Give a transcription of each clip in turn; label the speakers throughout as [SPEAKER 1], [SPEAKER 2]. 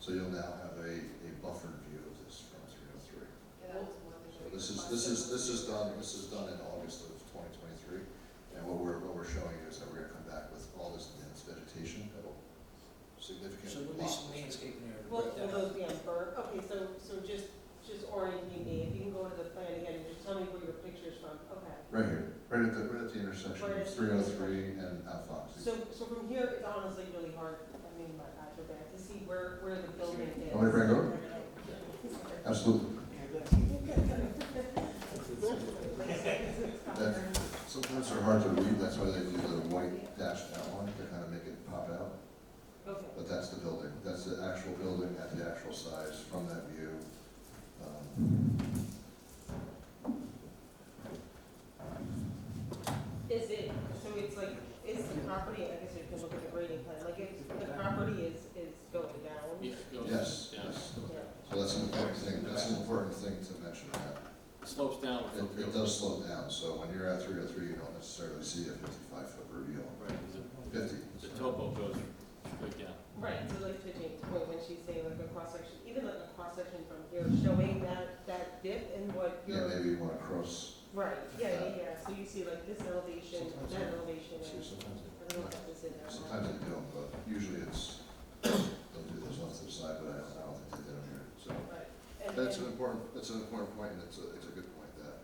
[SPEAKER 1] So you'll now have a, a buffered view of this from three oh three.
[SPEAKER 2] Yeah, that was one
[SPEAKER 1] So
[SPEAKER 2] thing.
[SPEAKER 1] this is, this is, this is done, this is done in August of twenty twenty-three. And what we're, what we're showing you is that we're gonna come back with all this dense vegetation that'll
[SPEAKER 3] So
[SPEAKER 1] significantly
[SPEAKER 3] at
[SPEAKER 1] block.
[SPEAKER 3] least landscaping there to
[SPEAKER 4] Well,
[SPEAKER 3] break
[SPEAKER 4] well,
[SPEAKER 3] that up.
[SPEAKER 4] those, yeah, bur, okay, so, so just, just orienting me, if you can go to the plan again, and just tell me where your picture's from, okay.
[SPEAKER 1] Right here, right at the, right at the intersection of
[SPEAKER 4] Right at the
[SPEAKER 1] three oh three and Alphox.
[SPEAKER 4] So, so from here, it's honestly really hard, I mean, my eyes are bad, to see where, where the building is.
[SPEAKER 1] Want me to bring it over? Absolutely. Sometimes they're hard to read, that's why they do the white dashed outline to kind of make it pop out.
[SPEAKER 4] Okay,
[SPEAKER 1] But that's the building, that's the actual building at the actual size from that view. Um,
[SPEAKER 4] is it, so it's like, is the property, I guess you can look at the grading plan, like, if the property is, is going down?
[SPEAKER 5] Yeah, it goes-
[SPEAKER 1] Yes,
[SPEAKER 5] yeah.
[SPEAKER 1] yes.
[SPEAKER 4] Yeah.
[SPEAKER 1] So that's an important thing, that's an important thing to mention. that.
[SPEAKER 5] Slopes down.
[SPEAKER 1] It, it does slow down, so when you're at three oh three, you don't necessarily see a fifty-five foot reveal.
[SPEAKER 5] Right, 'cause
[SPEAKER 1] Fifty,
[SPEAKER 5] the, the topo goes straight down.
[SPEAKER 4] Right, so like to Jane's point, when she's saying like a cross section, even like a cross section from here, showing that, that dip and what
[SPEAKER 1] yeah,
[SPEAKER 4] you're.
[SPEAKER 1] maybe you wanna cross,
[SPEAKER 4] Right, yeah, yeah, yeah, so you see like this elevation,
[SPEAKER 1] Sometimes,
[SPEAKER 4] that
[SPEAKER 1] yeah.
[SPEAKER 4] elevation,
[SPEAKER 1] see,
[SPEAKER 4] and
[SPEAKER 1] sometimes,
[SPEAKER 4] I
[SPEAKER 1] it-
[SPEAKER 4] don't know if that was in there. or not.
[SPEAKER 1] sometimes they don't, but usually it's, they'll do this off to the side, but I don't, I don't think they did them here, so.
[SPEAKER 4] Right, and,
[SPEAKER 1] That's an
[SPEAKER 4] and,
[SPEAKER 1] important, that's an important point, and it's a, it's a good point, that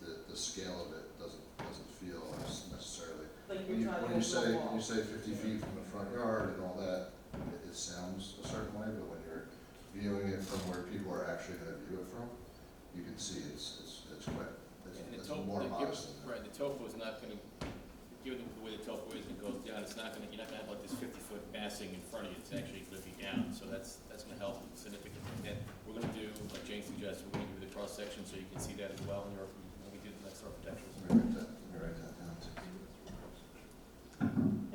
[SPEAKER 1] the, the scale of it doesn't, doesn't feel as necessarily.
[SPEAKER 4] like
[SPEAKER 1] When you,
[SPEAKER 4] you're trying to.
[SPEAKER 1] when you
[SPEAKER 4] go
[SPEAKER 1] say, when
[SPEAKER 4] wall.
[SPEAKER 1] you say fifty feet from the front yard and all that, it, it sounds a certain way, but when you're viewing it from where people are actually gonna view it from, you can see it's, it's, it's quite,
[SPEAKER 5] And the
[SPEAKER 1] it's, it's
[SPEAKER 5] topo-
[SPEAKER 1] more
[SPEAKER 5] the-
[SPEAKER 1] modest than that.
[SPEAKER 5] Right, the topo is not gonna, given the way the topo is, it goes down, it's not gonna, you're not gonna have like this fifty-foot massing in front of you, it's actually gonna be down, so that's, that's gonna help significantly. And we're gonna do, like Jane suggested, we're gonna do the cross-section so you can see that as well in your, when we do the next architectural.
[SPEAKER 1] Let me write that, let me write that down too.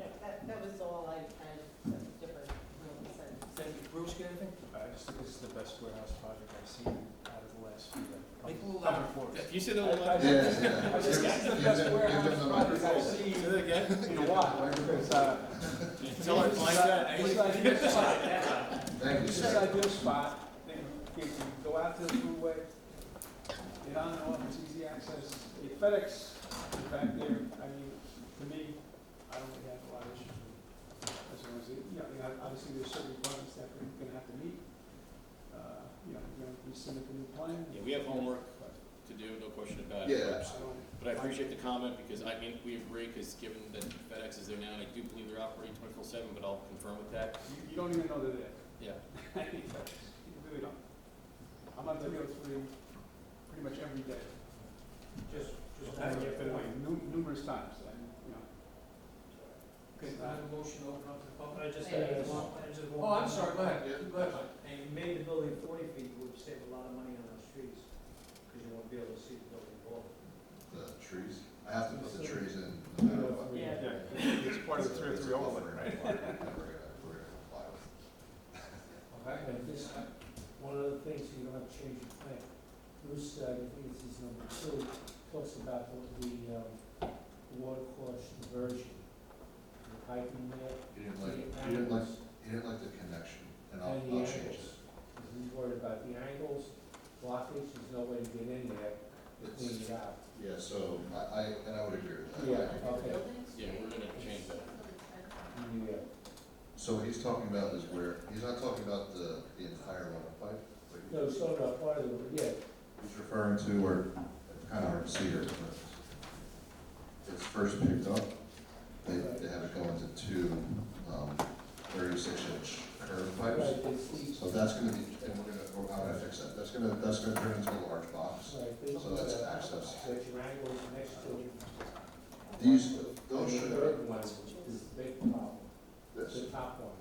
[SPEAKER 4] Yeah, that, that was all I kind of, that's different, you know, sense.
[SPEAKER 3] Thank you. Bruce, get anything?
[SPEAKER 6] I just, this is the best warehouse project I've seen out of the last few. uh,
[SPEAKER 3] Make a little
[SPEAKER 6] couple
[SPEAKER 3] louder.
[SPEAKER 6] quarters.
[SPEAKER 5] You said the one.
[SPEAKER 6] I- I-
[SPEAKER 1] Yeah,
[SPEAKER 6] this-
[SPEAKER 1] yeah.
[SPEAKER 6] I just- This is the
[SPEAKER 1] Give
[SPEAKER 6] best
[SPEAKER 1] them- give
[SPEAKER 6] warehouse
[SPEAKER 1] them the
[SPEAKER 6] project I've
[SPEAKER 1] microphone.
[SPEAKER 6] seen
[SPEAKER 5] Say that again?
[SPEAKER 6] in a while. It's, uh,
[SPEAKER 5] Tell her,
[SPEAKER 6] this is
[SPEAKER 5] like
[SPEAKER 6] a-
[SPEAKER 5] that.
[SPEAKER 6] This is an ideal spot.
[SPEAKER 1] Thank you,
[SPEAKER 6] This is
[SPEAKER 1] sir.
[SPEAKER 6] an ideal spot. You can go out to the freeway, get on and off, it's easy access. The FedEx is back there, I mean, to me, I don't really have a lot of issues with it. As long as, it- you know, I mean, obviously there's certain requirements that we're gonna have to meet. Uh, You know, we're gonna submit the new plan.
[SPEAKER 5] Yeah, we have homework to do, no question about it.
[SPEAKER 1] Yeah,
[SPEAKER 6] I don't-
[SPEAKER 5] But I appreciate the comment, because I mean, we agree, because given that FedEx is there now, and I do believe they're operating twenty-four seven, but I'll confirm with that,
[SPEAKER 6] You, you don't even know they're there.
[SPEAKER 5] yeah.
[SPEAKER 6] You really don't. I'm on three oh three pretty much every day.
[SPEAKER 3] Just, just
[SPEAKER 6] I
[SPEAKER 3] back
[SPEAKER 6] get
[SPEAKER 3] up
[SPEAKER 6] that way
[SPEAKER 3] point.
[SPEAKER 6] nu- numerous times, and, you know.
[SPEAKER 3] Okay, I have a motion to open up the
[SPEAKER 7] I
[SPEAKER 3] public.
[SPEAKER 7] just
[SPEAKER 2] Yeah, yeah.
[SPEAKER 7] had a small- I just
[SPEAKER 3] Oh,
[SPEAKER 7] want-
[SPEAKER 3] I'm sorry, go ahead,
[SPEAKER 1] Yeah.
[SPEAKER 3] go ahead.
[SPEAKER 7] And you made the building forty feet, you would save a lot of money on those trees, because you won't be able to see the building wall.
[SPEAKER 1] The trees, I have to put the trees in no matter what.
[SPEAKER 7] Oh,
[SPEAKER 4] Yeah.
[SPEAKER 6] It's part of the three oh
[SPEAKER 1] It's a
[SPEAKER 6] three overlay,
[SPEAKER 1] buffer
[SPEAKER 6] right?
[SPEAKER 1] and we're gonna- we're gonna- we're gonna comply with it.
[SPEAKER 3] Okay.
[SPEAKER 7] And this, one of the things, you don't have to change your plan. Bruce, uh, I think this is number two, talks about the, the, um, water course diversion, the piping there.
[SPEAKER 1] You didn't
[SPEAKER 7] to
[SPEAKER 1] like,
[SPEAKER 7] the
[SPEAKER 1] you didn't like,
[SPEAKER 7] angles,
[SPEAKER 1] you didn't like the connection, and I'll,
[SPEAKER 7] And the
[SPEAKER 1] I'll change it.
[SPEAKER 7] angles. Because he's worried about the angles, blockage, there's no way to get in there to
[SPEAKER 1] It's-
[SPEAKER 7] clean it out.
[SPEAKER 1] Yeah, so I, I, and I would agree with that.
[SPEAKER 7] Yeah.
[SPEAKER 2] Like the
[SPEAKER 7] okay.
[SPEAKER 2] buildings,
[SPEAKER 5] Yeah, we're gonna change that.
[SPEAKER 1] Mm.
[SPEAKER 7] Yeah.
[SPEAKER 1] So what he's talking about is where, he's not talking about the, the entire runoff pipe. but
[SPEAKER 7] No, so, no, part of the, yeah,
[SPEAKER 1] He's referring to where, it's kind of hard to see here, but it's first picked up. They, they have it go into two, um, thirty-six inch curved pipes.
[SPEAKER 7] right, there's these,
[SPEAKER 1] So that's gonna be, and we're gonna, we're gonna fix that, that's gonna, that's gonna turn into a large box.
[SPEAKER 7] right, there's.
[SPEAKER 1] So that's access.
[SPEAKER 7] But your angles next to it.
[SPEAKER 1] These,
[SPEAKER 7] And
[SPEAKER 1] those
[SPEAKER 7] the
[SPEAKER 1] should,
[SPEAKER 7] third one is the big problem,
[SPEAKER 1] this,
[SPEAKER 7] the top one.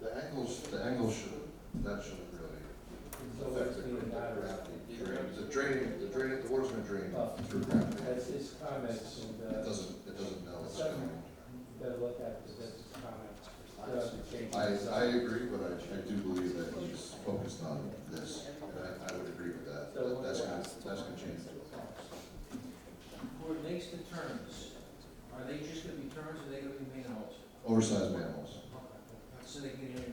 [SPEAKER 1] the angles, the angles should, that shouldn't really
[SPEAKER 7] It's always
[SPEAKER 1] affect the
[SPEAKER 7] been that,
[SPEAKER 1] gra- the gravity. drain- The drain, the drain, the water's gonna drain through gravity.
[SPEAKER 7] that's his comments and,
[SPEAKER 1] It
[SPEAKER 7] uh,
[SPEAKER 1] doesn't, it doesn't know what's going
[SPEAKER 7] better look at this, that's his comments. You
[SPEAKER 1] on.
[SPEAKER 7] have to change
[SPEAKER 1] I,
[SPEAKER 7] this up.
[SPEAKER 1] I agree, but I, I do believe that he's focused on this, and I, I would agree with that, that, that's gonna, that's gonna change.
[SPEAKER 3] Who makes the turns? Are they just gonna be turns, or are they gonna be manholes?
[SPEAKER 1] Oversized manholes.
[SPEAKER 3] So they can get in